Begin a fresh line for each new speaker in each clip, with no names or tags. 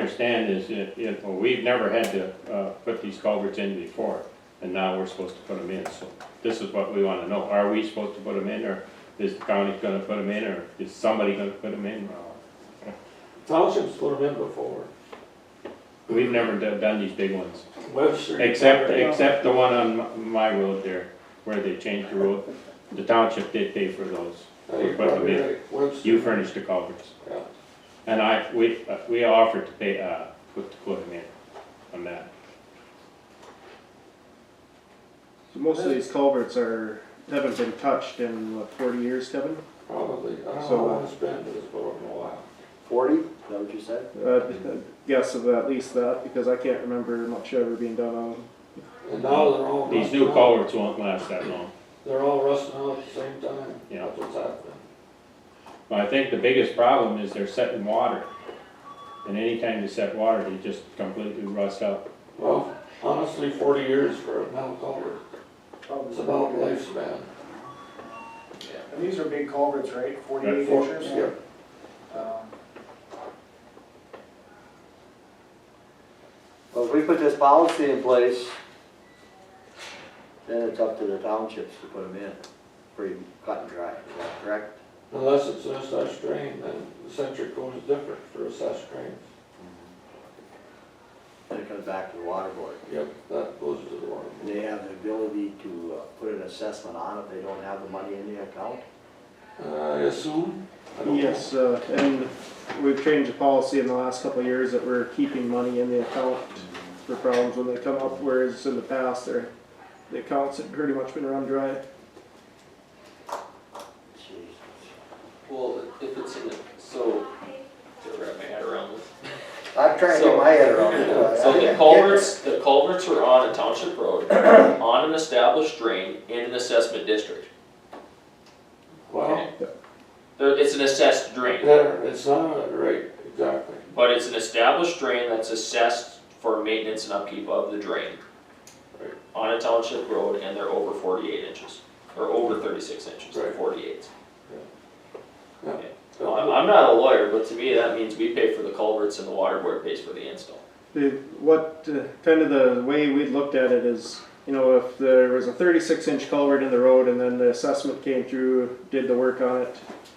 understand is, if, if, well, we've never had to, uh, put these culverts in before, and now we're supposed to put them in, so this is what we wanna know, are we supposed to put them in, or is the county gonna put them in, or is somebody gonna put them in?
Townships put them in before.
We've never do- done these big ones,
Webster.
except, except the one on m- my road there, where they changed the road, the township did pay for those,
Oh, You're probably right, Webster.
you furnished the culverts.
Yeah.
And I, we, uh, we offered to pay, uh, put, to put them in on that.
So most of these culverts are, haven't been touched in what, forty years, Kevin?
Probably, I don't
So- uh,
know how it's been, but it's been a while.
Forty, is that what you said?
Uh, guess of at least that, because I can't remember much ever being done on them.
And now they're all.
These new
rusting out.
culverts won't last that long.
They're all rusting out at the same time.
Yeah.
That's what's happening.
But I think the biggest problem is they're setting water. And anytime you set water, they just completely rust out.
Well, honestly, forty years for a metal culvert, it's about lifespan.
And these are big culverts, right,
Right,
forty-eight
Four-
inches?
yeah.
Um,
Well, if we put this policy in place, then it's up to the townships to put them in, pretty cut and dry, is that correct?
Unless it's an SS drain, then the centric code is different for SS drains.
Then it comes back to the water board.
Yep, that goes to the water.
And They have the ability to uh, put an assessment on if they don't have the money in the account.
Uh, I assume? I don't know.
Yes, uh, and we've changed the policy in the last couple of years that we're keeping money in the account for problems when they come up, whereas in the past, they're, the accounts had pretty much been run dry.
Jeez.
Well, if it's in the, so, to wrap my head around this.
I'm trying to get my head around it.
Uh,
I- I
So the
can't-
culverts, the culverts are on a township road, on an established drain in an assessment district.
Well,
There- It's an assessed drain,
there, it's not, right, exactly.
but it's an established drain that's assessed for maintenance and upkeep of the drain.
Right.
On a township road and they're over forty-eight inches, or over thirty-six inches,
Right.
forty-eight.
Yeah.
Well, I'm, I'm not a lawyer, but to me, that means we pay for the culverts and the water board pays for the install.
The, what, uh, kind of the way we looked at it is, you know, if there was a thirty-six inch culvert in the road and then the assessment came through, did the work on it,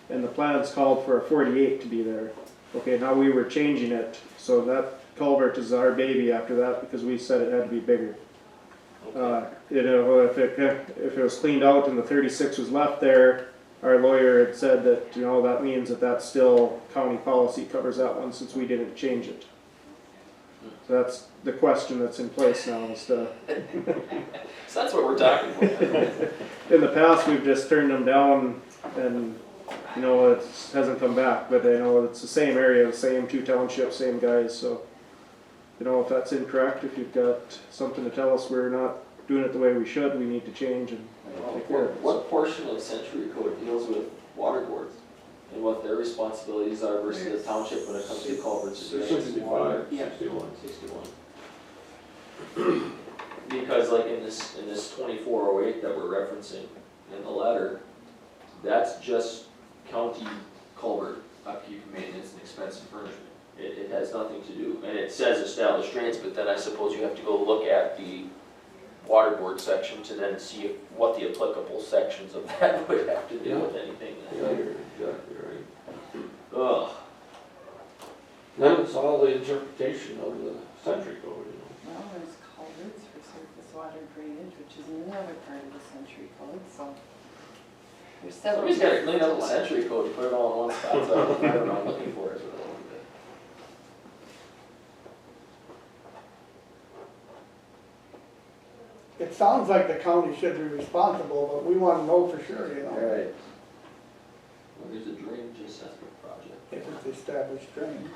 and the plans called for a forty-eight to be there. Okay, now we were changing it, so that culvert is our baby after that because we said it had to be bigger. Uh, you know, if it, if it was cleaned out and the thirty-six was left there, our lawyer had said that, you know, that means that that's still county policy covers that one since we didn't change it. So that's the question that's in place now is to,
So that's what we're talking about.
in the past, we've just turned them down and, you know, it hasn't come back, but I know it's the same area, the same two townships, same guys, so. You know, if that's incorrect, if you've got something to tell us, we're not doing it the way we should, we need to change and take care of it.
What portion of Century Code deals with water boards and what their responsibilities are versus the township when it comes to culverts and drains?
Sixty-five,
Yeah.
sixty-one.
Sixty-one. Because like in this, in this twenty-four oh eight that we're referencing in the letter, that's just county culvert upkeep, maintenance, and expense and furnishment. It, it has nothing to do, and it says established drains, but then I suppose you have to go look at the water board section to then see if- what the applicable sections of that would have to do with anything.
Yeah, you're exactly right.
Ugh,
Then it's all the interpretation of the century code, you know.
Well, there's culverts for surface water drainage, which is another part of the century code, so. There's several.
somebody's gotta clean up the
different-
century code, and put it all in one spot, so I don't know what I'm looking for. is what I'm looking for.
It sounds like the county should be responsible, but we wanna know for sure, you
All
know,
right,
Well, there's a drainage assessment project.
if it's established drain.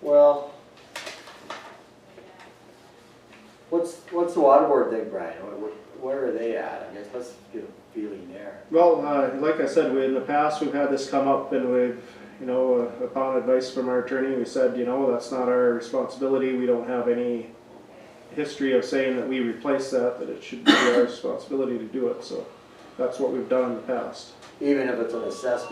well. What's, what's the water board thing, Brian? What- what- Where are they at? I guess let's get a feeling there.
Well, uh, like I said, we, in the past, we've had this come up and we've, you know, uh, upon advice from our attorney, we said, you know, that's not our responsibility, we don't have any history of saying that we replace that, that it should be our responsibility to do it, so that's what we've done in the past.
Even if it's an assessed